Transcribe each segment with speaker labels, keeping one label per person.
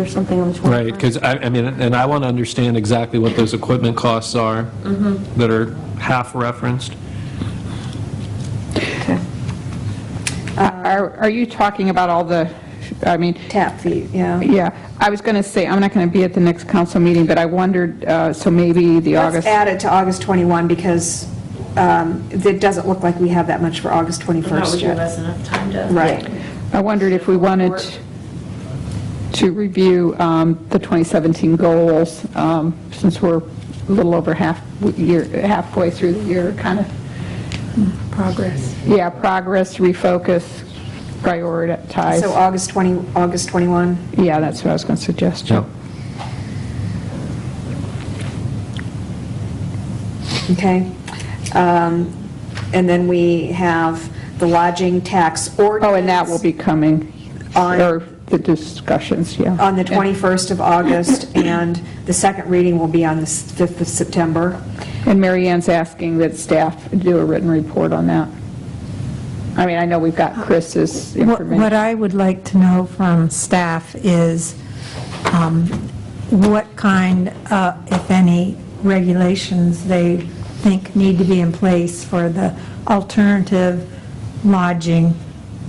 Speaker 1: or something on the 21st.
Speaker 2: Right, because I, I mean, and I want to understand exactly what those equipment costs are that are half referenced.
Speaker 3: Uh, Are are you talking about all the, I mean,
Speaker 1: Tap fee, yeah.
Speaker 3: yeah, I was going to say, I'm not going to be at the next council meeting, but I wondered, uh, so maybe the
Speaker 4: Let's
Speaker 3: August...
Speaker 4: add it to August 21, because um, it doesn't look like we have that much for August
Speaker 5: That would
Speaker 4: 21st
Speaker 5: give
Speaker 4: yet.
Speaker 5: us enough time to.
Speaker 4: Right.
Speaker 3: I wondered if we wanted to review um, the 2017 goals, um, since we're a little over half, year, halfway through the year, kind of. Progress. Yeah, progress, refocus,
Speaker 4: So
Speaker 3: prioritize.
Speaker 4: August 20, August 21,
Speaker 3: Yeah, that's what I was going to suggest, Joe.
Speaker 4: okay? Um, And then we have the lodging tax ordinance.
Speaker 3: Oh, and that will be coming,
Speaker 4: On-
Speaker 3: or the discussions, yeah.
Speaker 4: On the 21st of August, and the second reading will be on the s- 5th of September.
Speaker 3: And Mary Ann's asking that staff do a written report on that. I mean, I know we've got Chris's
Speaker 6: What
Speaker 3: information.
Speaker 6: what I would like to know from staff is um, what kind, uh, if any, regulations they think need to be in place for the alternative lodging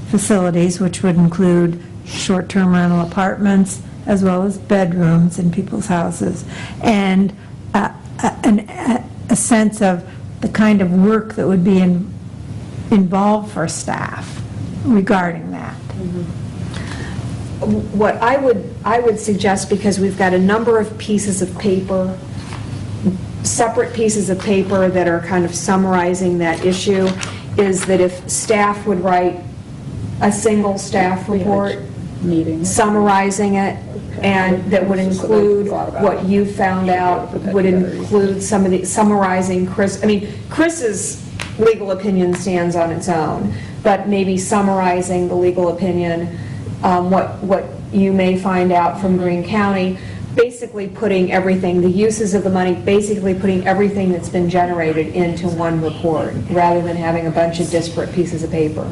Speaker 6: facilities, which would include short-term rental apartments, as well as bedrooms in people's houses, and uh, a an- a- a sense of the kind of work that would be in- involved for staff regarding that.
Speaker 4: What I would, I would suggest, because we've got a number of pieces of paper, separate pieces of paper that are kind of summarizing that issue, is that if staff would write a single staff report summarizing it, and that would include what you found out, would include some of the, summarizing Chris, I mean, Chris's legal opinion stands on its own, but maybe summarizing the legal opinion, um, what, what you may find out from Green County, basically putting everything, the uses of the money, basically putting everything that's been generated into one report, rather than having a bunch of disparate pieces of paper.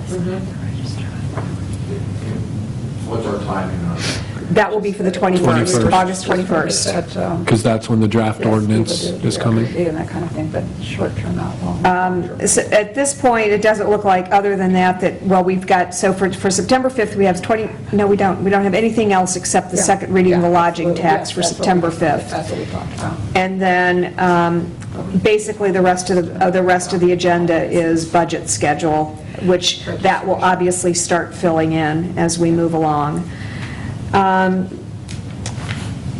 Speaker 7: What's our timing on that?
Speaker 4: That will be for the 21st,
Speaker 2: 21st.
Speaker 4: August 21st.
Speaker 2: Because that's when the draft ordinance is coming.
Speaker 3: And that kind of thing, but short-term, not long.
Speaker 4: Um, So At this point, it doesn't look like, other than that, that, well, we've got, so for, for September 5th, we have 20, no, we don't, we don't have anything else except the second reading of the lodging tax for September 5th.
Speaker 3: what we talked about.
Speaker 4: And then, um, basically, the rest of, the- uh, the rest of the agenda is budget schedule, which that will obviously start filling in as we move along. Um,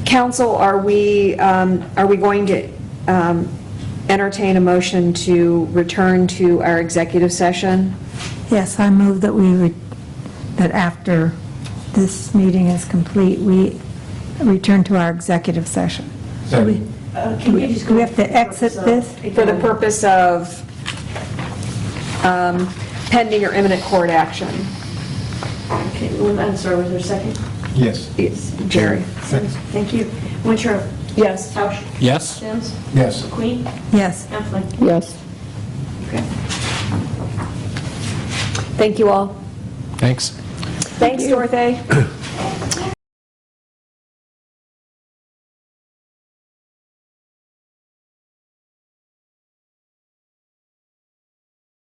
Speaker 4: Council, are we, um, are we going to um, entertain a motion to return to our executive session?
Speaker 6: Yes, I move that we, re- that after this meeting is complete, we return to our executive session.
Speaker 7: Second.
Speaker 5: Uh, Can you just go?
Speaker 6: We have to exit this?
Speaker 4: For the purpose of um, pending or imminent court action?
Speaker 5: Okay, well, I'm sorry, was there a second?
Speaker 7: Yes.
Speaker 4: Jerry?
Speaker 5: Thank you. Winter?
Speaker 4: Yes.
Speaker 5: Tausch?
Speaker 2: Yes?
Speaker 5: Sims?
Speaker 7: Yes.
Speaker 5: Queen?
Speaker 6: Yes.
Speaker 5: Heflin?
Speaker 3: Yes.
Speaker 4: Thank you all.
Speaker 2: Thanks.
Speaker 4: Thanks, Dorothy.